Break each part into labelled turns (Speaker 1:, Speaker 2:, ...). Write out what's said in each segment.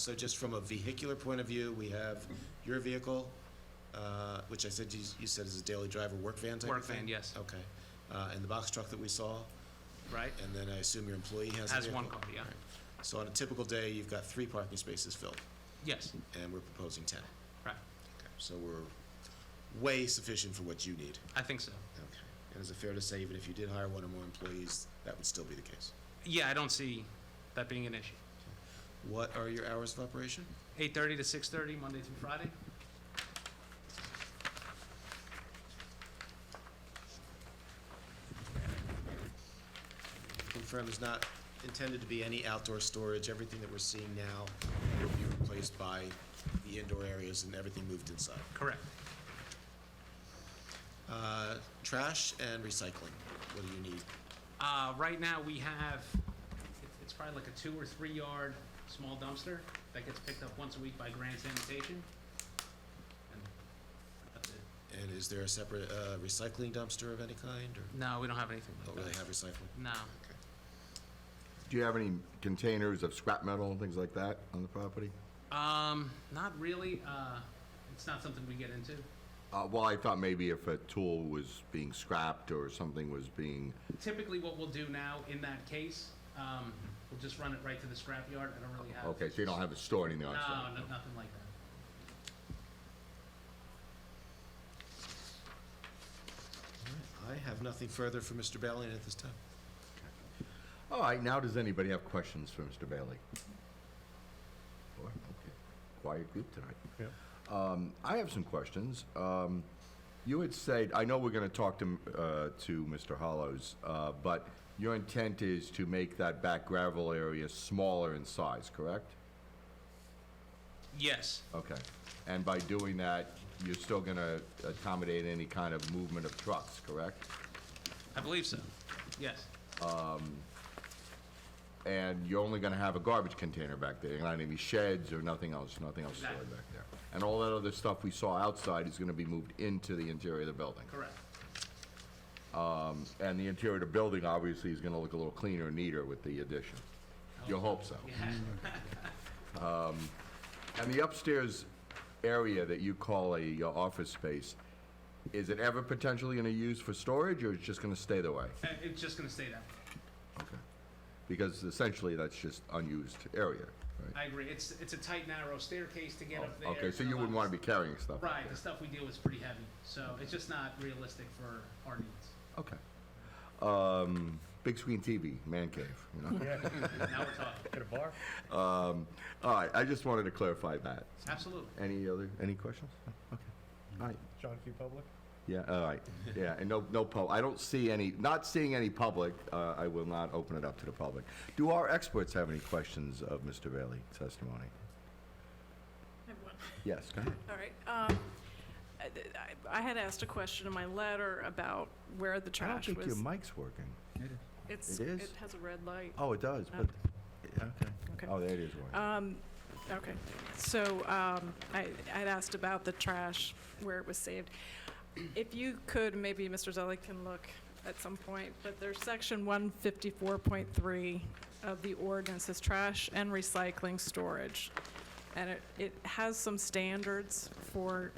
Speaker 1: So just from a vehicular point of view, we have your vehicle, uh, which I said, you you said is a daily driver, work van type of
Speaker 2: Work
Speaker 1: thing?
Speaker 2: van, yes.
Speaker 1: Okay. Uh, And the box truck that we saw,
Speaker 2: right?
Speaker 1: and then I assume your employee has a
Speaker 2: Has one
Speaker 1: vehicle?
Speaker 2: car, yeah.
Speaker 1: So on a typical day, you've got three parking spaces filled,
Speaker 2: Yes,
Speaker 1: and we're proposing 10.
Speaker 2: right.
Speaker 1: So we're way sufficient for what you need.
Speaker 2: I think so.
Speaker 1: Okay. And is it fair to say, even if you did hire one or more employees, that would still be the case?
Speaker 2: Yeah, I don't see that being an issue.
Speaker 1: What are your hours of operation?
Speaker 2: 8:30 to 6:30, Monday through Friday?
Speaker 1: Confirm is not intended to be any outdoor storage. Everything that we're seeing now will be replaced by the indoor areas and everything moved inside.
Speaker 2: Correct.
Speaker 1: Uh, Trash and recycling, what do you need?
Speaker 2: Uh, Right now, we have, it- it's probably like a two or three yard small dumpster that gets picked up once a week by Grand Sanitation. And that's it.
Speaker 1: And is there a separate uh, recycling dumpster of any kind, or
Speaker 2: No, we don't have anything
Speaker 1: don't
Speaker 2: like
Speaker 1: really
Speaker 2: that.
Speaker 1: Oh, have recycling?
Speaker 2: No,
Speaker 3: Do you have any containers of scrap metal and things like that on the property?
Speaker 2: Um, not really. Uh, It's not something we get into.
Speaker 3: Uh, well, I thought maybe if a tool was being scrapped or something was being,
Speaker 2: Typically, what we'll do now in that case, um, we'll just run it right to the scrapyard. I don't really have.
Speaker 3: okay, so you don't have it stored anything
Speaker 2: No,
Speaker 3: on site?
Speaker 2: no- nothing like that.
Speaker 1: I have nothing further for Mr. Bellion at this time.
Speaker 3: All right, now does anybody have questions for Mr. Bailey? Or, okay, Quiet group tonight. Um, I have some questions. Um, you had said, I know we're gonna talk to, m- uh, to Mr. Hollows, uh, but your intent is to make that back gravel area smaller in size, correct?
Speaker 2: Yes,
Speaker 3: Okay, and by doing that, you're still gonna accommodate any kind of movement of trucks, correct?
Speaker 2: I believe so. Yes,
Speaker 3: And you're only gonna have a garbage container back there, you're not gonna have any sheds or nothing else, nothing else stored
Speaker 2: Exactly.
Speaker 3: back there. And all that other stuff we saw outside is gonna be moved into the interior of the building.
Speaker 2: correct.
Speaker 3: And the interior of the building, obviously, is gonna look a little cleaner and neater with the addition. You hope so.
Speaker 2: Yeah,
Speaker 3: And the upstairs area that you call a uh, office space, is it ever potentially gonna use for storage, or it's just gonna stay the way?
Speaker 2: Uh, it's just gonna stay that way.
Speaker 3: Okay. Because essentially, that's just unused area,
Speaker 2: I
Speaker 3: right?
Speaker 2: agree. It's, it's a tight, narrow staircase to get up there.
Speaker 3: Oh, Okay, so you wouldn't want to be carrying stuff? up
Speaker 2: Right,
Speaker 3: there.
Speaker 2: the stuff we deal with is pretty heavy, so it's just not realistic for our needs.
Speaker 3: Okay. Um, big screen TV, man cave, you know?
Speaker 2: Now we're talking.
Speaker 4: At a bar?
Speaker 3: Um, all right, I just wanted to clarify that.
Speaker 2: Absolutely.
Speaker 3: Any other, any questions? Okay. All right,
Speaker 4: John Q. Public?
Speaker 3: yeah, all right, yeah, and no, no pub, I don't see any, not seeing any public, uh, I will not open it up to the public. Do our experts have any questions of Mr. Bailey testimony?
Speaker 5: Everyone.
Speaker 3: Yes, go ahead.
Speaker 5: All right. um, I- I I had asked a question in my letter about where the
Speaker 3: I don't
Speaker 5: trash
Speaker 3: think your
Speaker 5: was.
Speaker 3: mic's working.
Speaker 5: It's-
Speaker 3: it is?
Speaker 5: It has a red light.
Speaker 3: Oh, it does, but, okay.
Speaker 5: Okay.
Speaker 3: Oh, there it is, working.
Speaker 5: Um, Okay. So um, I I'd asked about the trash, where it was saved. If you could, maybe Mr. Zelli can look at some point, but there's section 154.3 of the ordinance is trash and recycling storage. And it, it has some standards for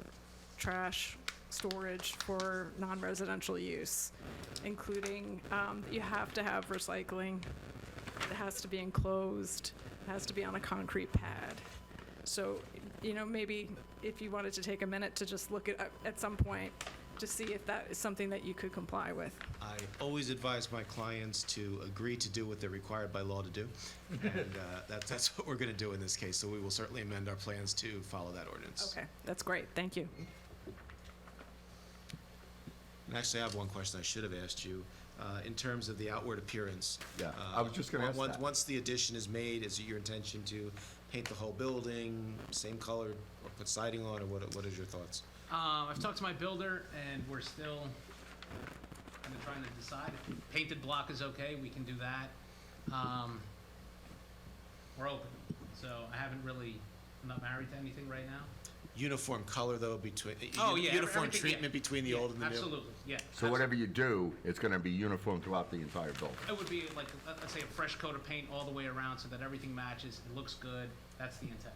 Speaker 5: trash storage for non-residential use, including um, that you have to have recycling, it has to be enclosed, it has to be on a concrete pad. So, you know, maybe if you wanted to take a minute to just look at, at some point, to see if that is something that you could comply with.
Speaker 1: I always advise my clients to agree to do what they're required by law to do. And uh, that's, that's what we're going to do in this case, so we will certainly amend our plans to follow that ordinance.
Speaker 5: Okay, that's great, thank you.
Speaker 1: And actually, I have one question I should have asked you, uh, in terms of the outward appearance.
Speaker 3: Yeah,
Speaker 1: Uh,
Speaker 3: I was just gonna ask
Speaker 1: once-
Speaker 3: that.
Speaker 1: Once the addition is made, is it your intention to paint the whole building, same color, or put siding on, or what, what is your thoughts?
Speaker 2: Um, I've talked to my builder, and we're still kind of trying to decide. If Painted block is okay, we can do that. Um, we're open, so I haven't really, I'm not married to anything right now.
Speaker 1: Uniform color, though, between,
Speaker 2: Oh,
Speaker 1: u-
Speaker 2: yeah, every-
Speaker 1: uniform
Speaker 2: everything, yeah.
Speaker 1: treatment between the
Speaker 2: Yeah,
Speaker 1: old and the new?
Speaker 2: Absolutely, yeah.
Speaker 3: So whatever you do, it's gonna be uniform throughout the entire building.
Speaker 2: It would be like, let- let's say a fresh coat of paint all the way around so that everything matches, it looks good, that's the intent.